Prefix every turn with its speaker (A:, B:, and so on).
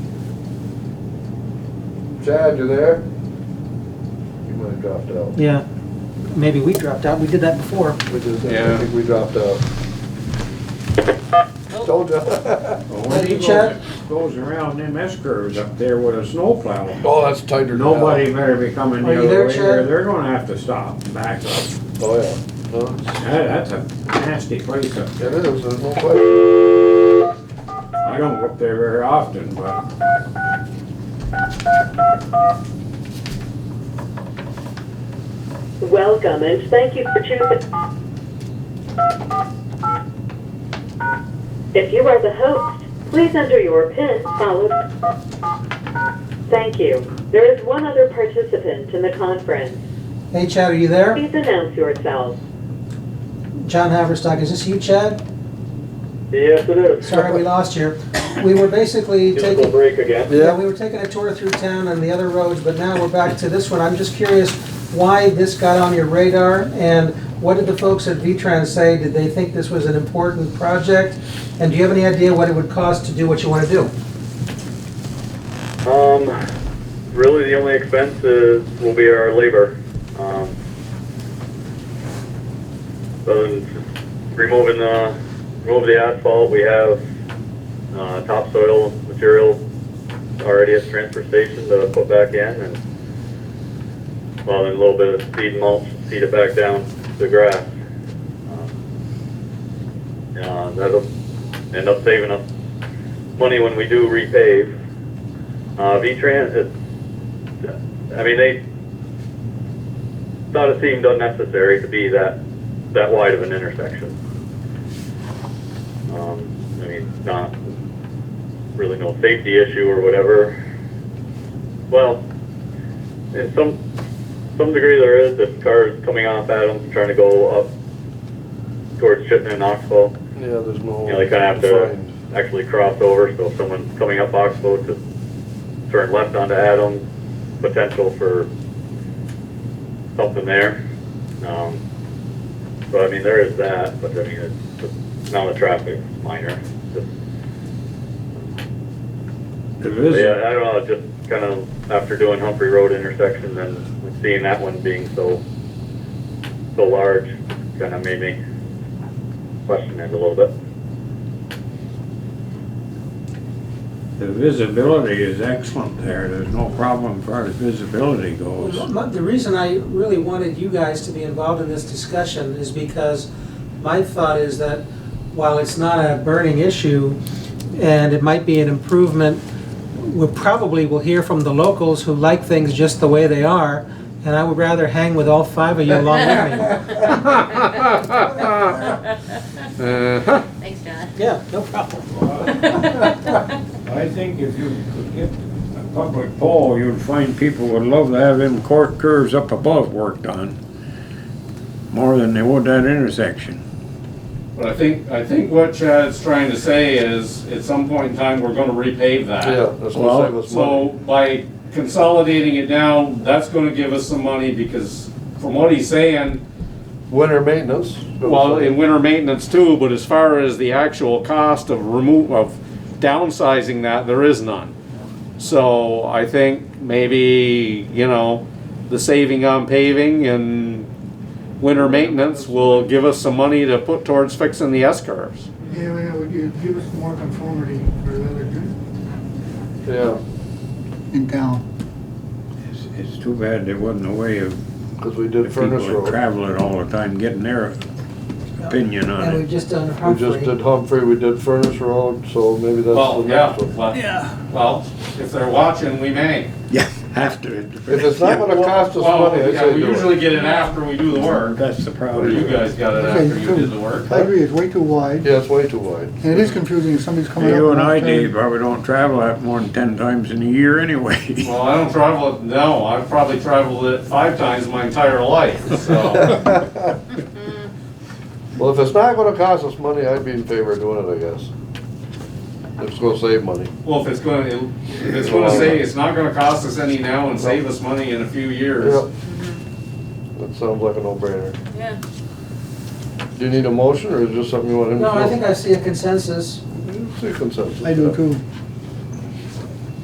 A: Chad, you there? You might have dropped out.
B: Yeah, maybe we dropped out, we did that before.
A: We just, I
C: Yeah.
A: think we dropped out. Told ya.
D: Well, when he
B: Chad?
D: goes, goes around them S curves up there with a snowplow,
A: Oh, that's tighter now.
D: nobody better be coming
B: Are
D: the
B: you
D: other
B: there,
D: way, or
B: Chad?
D: they're gonna have to stop and back up.
A: Oh, yeah. No, it's-
D: That, that's a nasty place up there.
A: It is, there's no question.
D: I don't go up there very often, but
E: Welcome and thank you for choosing. If you are the host, please enter your PIN followed. Thank you. There is one other participant in the conference.
B: Hey Chad, are you there?
E: Please announce yourself.
B: John Haverstock, is this you, Chad?
F: Yes, it is.
B: Sorry we lost you. We were basically
F: Musical
B: taking,
F: break again.
B: yeah, we were taking a tour through town and the other roads, but now we're back to this one. I'm just curious why this got on your radar and what did the folks at V-Trans say? Did they think this was an important project? And do you have any idea what it would cost to do what you want to do?
F: Um, really the only expense is, will be our labor. Um, Other than removing the, remove the asphalt, we have, uh, topsoil material already at the transfer station to put back in and, well, then a little bit of seed mulch, seed it back down to grass. Um, Uh, that'll end up saving us money when we do repave. Uh, V-Trans, it- I mean, they thought it seemed unnecessary to be that, that wide of an intersection. Um, I mean, not really no safety issue or whatever. Well, in some, some degree there is, if cars coming off Adams trying to go up towards Chittenden and Knoxville,
A: Yeah, there's no.
F: you know, they kind of have
A: Find.
F: to actually cross over, so if someone's coming up Oxbow to turn left onto Adams, potential for something there. Um, so I mean, there is that, but I mean, it's, it's not a traffic minor. Just-
D: it
F: but
D: is,
F: Yeah, I don't know, just kind of after doing Humphrey Road intersection and seeing that one being so, so large, kind of made me question it a little bit.
D: the visibility is excellent there. There's no problem as far as visibility goes.
B: Well, my- The reason I really wanted you guys to be involved in this discussion is because my thought is that while it's not a burning issue and it might be an improvement, we probably will hear from the locals who like things just the way they are, and I would rather hang with all five of you along with me.
A: Uh-huh.
G: Thanks, John.
B: Yeah, no problem.
D: I think if you could get a public poll, you'd find people would love to have them cork curves up above worked on. More than they would that intersection.
H: But I think, I think what Chad's trying to say is, at some point in time, we're gonna repave
A: Yeah,
H: that.
A: that's
D: Well,
A: gonna save us
H: So
A: money.
H: by consolidating it down, that's gonna give us some money, because from what he's saying,
A: Winter maintenance.
H: well, in winter maintenance too, but as far as the actual cost of remove, of downsizing that, there is none. So I think maybe, you know, the saving on paving and winter maintenance will give us some money to put towards fixing the S curves.
I: Yeah, yeah, would you give us more conformity for the other good
A: Yeah,
I: in town?
D: It's, it's too bad there wasn't a way of,
A: cause we
D: the
A: did
D: people
A: Furnace
D: that
A: Road.
D: travel it all the time getting their opinion
B: And
D: on
B: we've
D: it.
B: just done
A: We just
B: Humphrey.
A: did Humphrey, we did Furnace Road, so maybe that's the
H: Well, yeah,
A: next one.
H: well, well, if they're watching, we may.
D: Yeah, after it.
A: If it's not gonna cost us
H: Well,
A: money, I
H: yeah,
A: say
H: we
A: do
H: usually
A: it.
H: get it after we do the work,
D: That's the
H: or
D: problem.
H: you guys got it
I: Okay,
H: after you
I: sure.
H: did the work.
I: I agree, it's way too wide,
A: Yeah, it's way too wide.
I: and it is confusing if somebody's coming up.
D: You and I,
I: off turn.
D: Dave, probably don't travel that more than ten times in a year anyway.
H: Well, I don't travel it, no, I've probably traveled it five times my entire life, so.
A: Mm-hmm. Well, if it's not gonna cost us money, I'd be in favor of doing it, I guess. If It's gonna save money.
H: Well, if it's gonna, if it's gonna say, it's not gonna cost us any now and save us money in a few years.
A: Yep. Mm-hmm. That sounds like a no-brainer.
G: Yeah.
A: Do you need a motion, or is this something you want him to?
B: No, I
A: do?
B: think I see a consensus.
A: It's a consensus.
I: I do too.